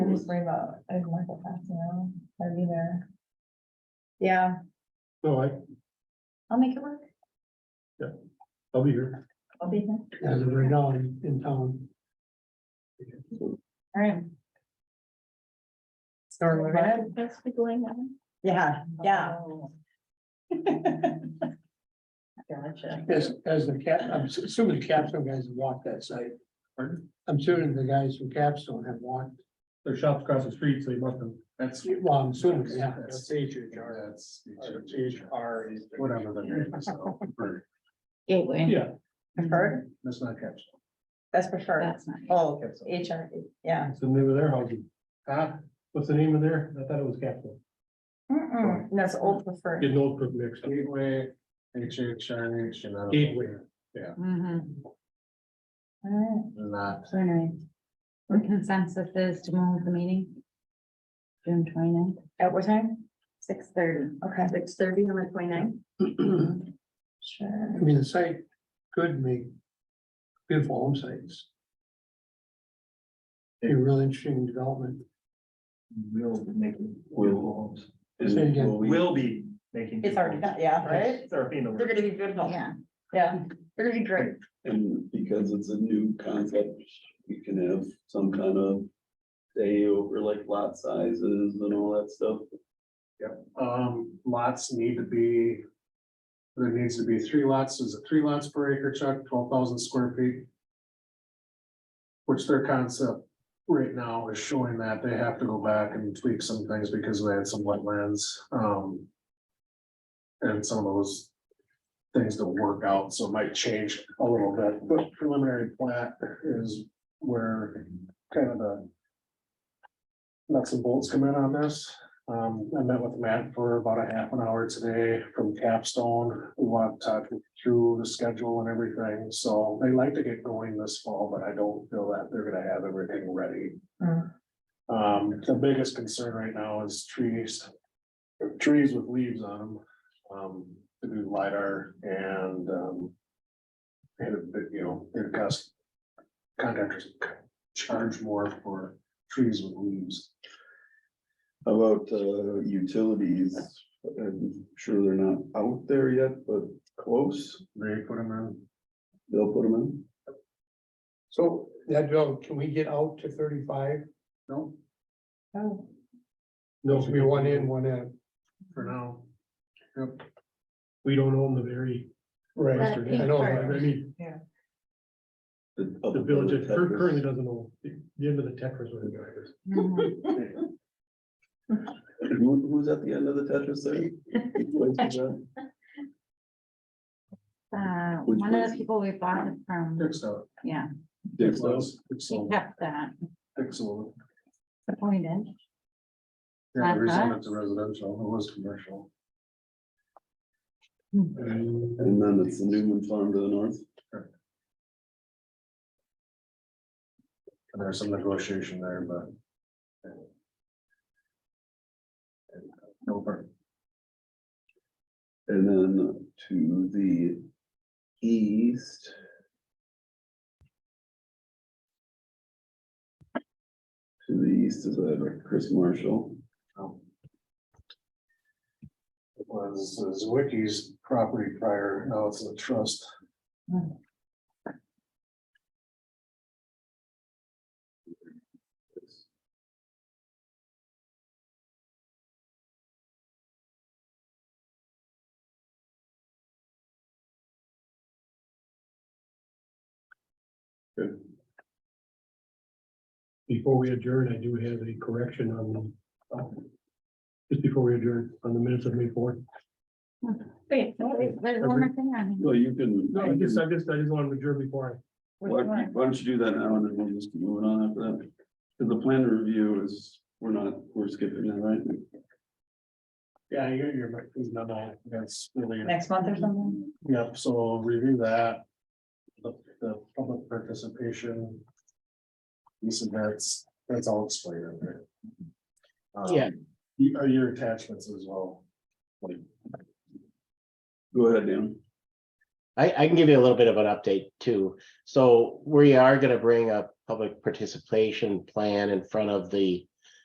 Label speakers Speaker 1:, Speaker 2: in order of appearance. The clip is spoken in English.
Speaker 1: just worry about if Michael passing out, I'd be there. Yeah,
Speaker 2: No, I,
Speaker 1: I'll make it work.
Speaker 2: I'll be here.
Speaker 1: I'll be there.
Speaker 3: as of right now in in town.
Speaker 1: All right.
Speaker 4: Storm event.
Speaker 1: Yeah,
Speaker 4: yeah.
Speaker 1: Gotcha.
Speaker 3: As, as the cap, I'm s- assuming the capstone guys have walked that site.
Speaker 2: Pardon?
Speaker 3: I'm assuming the guys from capstone have walked,
Speaker 2: Their shop's across the street, so you must have.
Speaker 5: That's.
Speaker 3: well, I'm assuming, yeah.
Speaker 5: That's- That's.
Speaker 3: R is.
Speaker 5: Whatever the name is. so, for-
Speaker 4: Gateway.
Speaker 2: Yeah.
Speaker 1: Preferred,
Speaker 5: That's not capsule.
Speaker 1: Mm-hmm. that's preferred.
Speaker 4: That's not.
Speaker 1: Oh,
Speaker 5: Capsule.
Speaker 1: HR, yeah.
Speaker 2: What's the name of their housing? Ah, what's the name of their? I thought it was Capitol.
Speaker 1: Mm-mm, that's old preferred.
Speaker 2: Getting old, quick mixed. up.
Speaker 5: Gateway, H H I H, and I don't know.
Speaker 2: Gateway.
Speaker 4: Mhm.
Speaker 1: All
Speaker 5: Not,
Speaker 4: So anyway, the consensus is to move the meeting. June 29th,
Speaker 1: right. At what time?
Speaker 4: six thirty.
Speaker 1: Okay,
Speaker 4: Six thirty on the twenty ninth.
Speaker 1: sure.
Speaker 3: I mean, the site could make beautiful home sites. A real interesting development.
Speaker 6: Will be making. Will homes.
Speaker 3: Say it again.
Speaker 6: Will be making.
Speaker 1: It's already done, yeah, right?
Speaker 6: It's already in the
Speaker 1: They're
Speaker 6: works.
Speaker 1: gonna be beautiful.
Speaker 4: Oh. Yeah.
Speaker 1: Yeah, they're gonna be great.
Speaker 7: And because it's a new concept, we can have some kind of day over like lot sizes and all that stuff.
Speaker 5: um, lots need to be. There needs to be three lots, is it three lots per acre, Chuck, twelve thousand square feet? Which their concept right now is showing that they have to go back and tweak some things because they had some wetlands, um. And some of those things don't work out, so it might change a little bit, but preliminary plat is where kind of the. Nuts and bolts come in on this. Um, I met with Matt for about a half an hour today from Capstone. We walked talked through the schedule and everything, so they like to get going this fall, but I don't feel that they're gonna have everything ready.
Speaker 1: Hmm.
Speaker 5: Um, the biggest concern right now is trees. Trees with leaves on them, um, to do LiDAR and, um. And, it- it, you know, it costs. Contractors charge more for trees with leaves.
Speaker 7: How About uh, utilities, I'm sure they're not out there yet, but close,
Speaker 5: They put them in.
Speaker 7: they'll put them in.
Speaker 3: So that, development, can we get out to thirty-five?
Speaker 5: No,
Speaker 1: Oh,
Speaker 2: No,
Speaker 3: Should be one in, one out.
Speaker 5: for now. Yep,
Speaker 2: We don't own the very.
Speaker 3: Right. I know,
Speaker 2: I
Speaker 3: right.
Speaker 2: mean, the village that cur- currently doesn't own, the the end of the Tetris. where the guy is.
Speaker 7: Who- Who's at the end of the Tetris there? Which place is that?
Speaker 4: Uh,
Speaker 7: Which
Speaker 4: one of
Speaker 7: was-
Speaker 4: the people we bought it from,
Speaker 5: fixed up.
Speaker 4: yeah,
Speaker 7: Dick's house?
Speaker 4: she
Speaker 5: Pixel,
Speaker 4: kept that,
Speaker 5: pixel.
Speaker 4: appointed.
Speaker 5: Yeah, the reason
Speaker 4: Uh-huh.
Speaker 5: it's a residential, it was commercial.
Speaker 4: Hmm.
Speaker 5: Um,
Speaker 7: And then it's the Newman Farm to the north.
Speaker 5: and There's some negotiation there, but. uh, No, but
Speaker 7: And then to the east. To the east is uh, Chris Marshall.
Speaker 5: it was Zwicky's property prior, now it's a trust.
Speaker 2: Before we adjourn, I do have a correction on the. um, Just before we adjourn, on the minutes of May fourth.
Speaker 4: Wait, wait, there's one more thing on here.
Speaker 7: Well, you can.
Speaker 2: No, I just, I just, I just wanted to adjourn before
Speaker 7: Why why don't you do that now and then we'll just keep moving on after that? Because the plan review is, we're not, we're skipping that, right?
Speaker 5: Yeah, you're, you're, no, no, that's really.
Speaker 1: Next month or something?
Speaker 5: Yep, so I'll review that. The, the public participation. These events, that's all explained in there. Um,
Speaker 3: Yeah.
Speaker 5: You, are your attachments as well.
Speaker 7: Go ahead, Dan.
Speaker 8: I, I can give you a little bit of an update too. So we are gonna bring a public participation plan in front of the